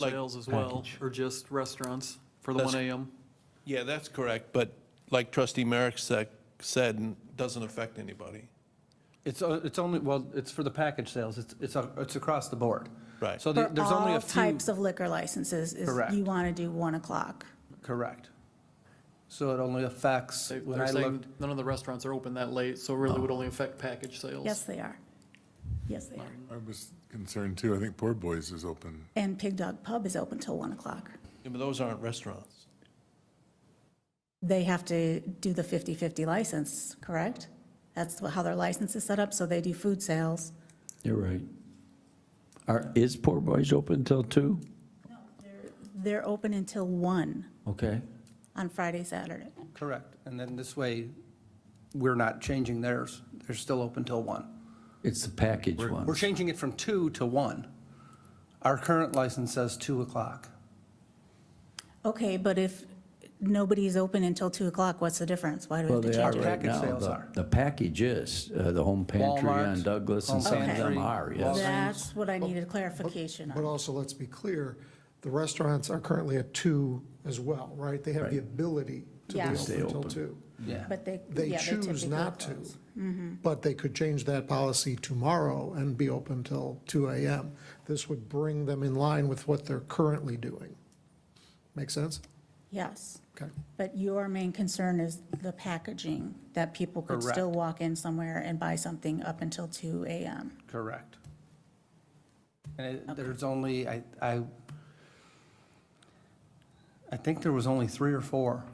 Like- sales as well, or just restaurants for the That's- one AM? Yeah, that's correct, but like trustee Merrick said- said, n- doesn't affect anybody. It's, o- it's only, well, it's for the package sales, it's, it's, a- it's across the board. Right. So there- For there's only all a few, types of liquor licenses, is Correct. you want to do 1 o'clock. correct. So it only affects, They- when They're I saying looked, none of the restaurants are open that late, so it Oh. really would only affect package sales. Yes, they are. Yes, they are. I was concerned too. I think Poor Boys is open. And Pig Dog Pub is open till 1 o'clock. Yeah, but those aren't restaurants. They have to do the 50/50 license, correct? That's how their license is set up, so they do food sales. You're right. Are, is Poor Boys open till two? They're open until 1 Okay. on Friday, Saturday. correct. And then this way, we're not changing theirs. They're still open till one. It's the package We're one. changing it from two to one. Our current license says two o'clock. Okay, but if nobody's open until 2 o'clock, what's the difference? Why do we Well, have to they are change it? right Package now. sales The- are. The package is, uh, the home pantry Walmart, on Douglas Home and some of Pantry, them are, yes. Walmart. That's what I needed clarification But on. also, let's be clear, the restaurants are currently at two as well, right? They have the ability to be Yeah. open Stay until open. two. Yeah. But they, They yeah, they choose typically not to, close. Mm-hmm. but they could change that policy tomorrow and be open till two AM. This would bring them in line with what they're currently doing. Make sense? Yes. Okay. But your main concern is the packaging, that people could still Correct. walk in somewhere and buy something up until two AM. Correct. And it- there's only, I, I, I think there was only three or four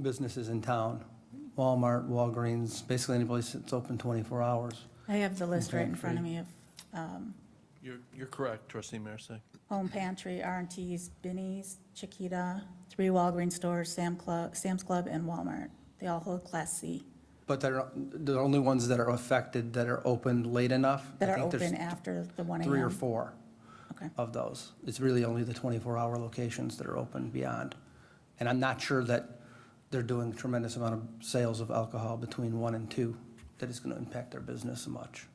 businesses in town. Walmart, Walgreens, basically any place that's open 24 hours. I have the list right in front of me of You're, you're correct, trustee Marisak. Home Pantry, r and T's, Benny's, Chiquita, three Walgreens stores, Sam Club, Sam's Club, and Walmart. They all hold Class C, But they're, the only ones that are affected that are open late enough. I that are think there's open after the one AM. Three or four Okay. of those. It's really only the 24-hour locations that are open beyond. And I'm not sure that they're doing a tremendous amount of sales of alcohol between one and two that is going to impact their business much.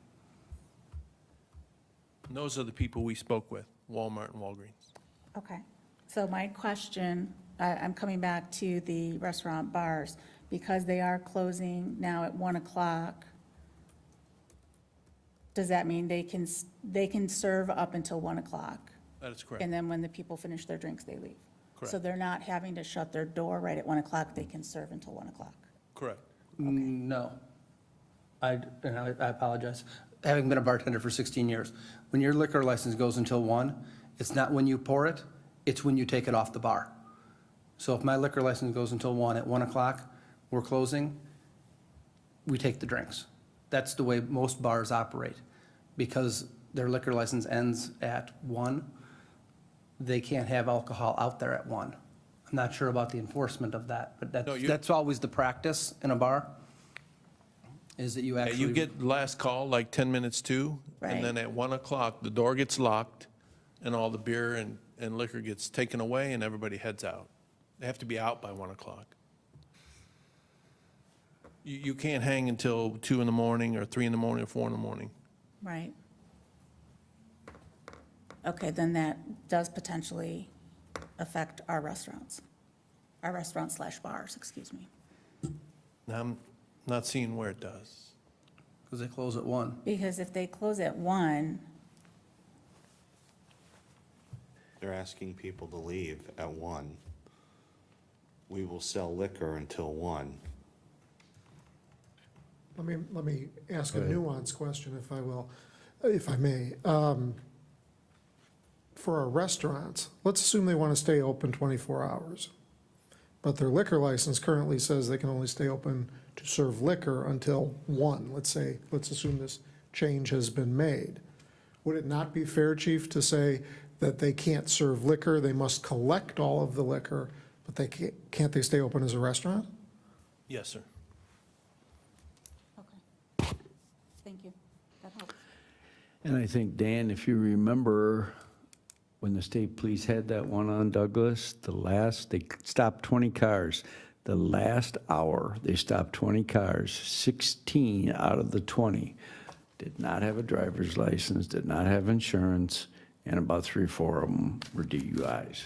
And Those are the people we spoke with, Walmart and Walgreens. Okay. So my question, I- I'm coming back to the restaurant bars, because they are closing now at 1 o'clock, does that mean they can, s- they can serve up until 1 o'clock? That is correct. And then when the people finish their drinks, they leave? So Correct. they're not having to shut their door right at 1 o'clock, they can serve until 1 o'clock? Correct. No. I, and I I apologize. Having been a bartender for 16 years, when your liquor license goes until one, it's not when you pour it, it's when you take it off the bar. So if my liquor license goes until one, at one o'clock, we're closing, we take the drinks. That's the way most bars operate. Because their liquor license ends at one, they can't have alcohol out there at one. I'm not sure about the enforcement of that, but No, that's, you- that's always the practice in a bar, is that you Yeah, actually. You get last call, like 10 minutes to, and then Right. at 1 o'clock, the door gets locked, and all the beer and and liquor gets taken away, and everybody heads out. They have to be out by 1 o'clock. You you can't hang until 2 in the morning, or 3 in the morning, or 4 in the morning. Right. Okay, then that does potentially affect our restaurants, our restaurants slash bars, excuse me. And I'm not seeing where it does. Because they close at one. Because if they close at one, They're asking people to leave at one. We will sell liquor until one. Let me, let me ask a nuanced question, if I will, if I may. Um, For our restaurants, let's assume they want to stay open 24 hours, but their liquor license currently says they can only stay open to serve liquor until 1, let's say, let's assume this change has been made. Would it not be fair, chief, to say that they can't serve liquor, they must collect all of the liquor, but they can't, can't they stay open as a restaurant? Yes, sir. okay. Thank you. That helps. And I think, Dan, if you remember, when the state police had that one on Douglas, the last, they stopped 20 cars. The last hour, they stopped 20 cars, 16 out of the 20 did not have a driver's license, did not have insurance, and about three, or four of them were DUIs.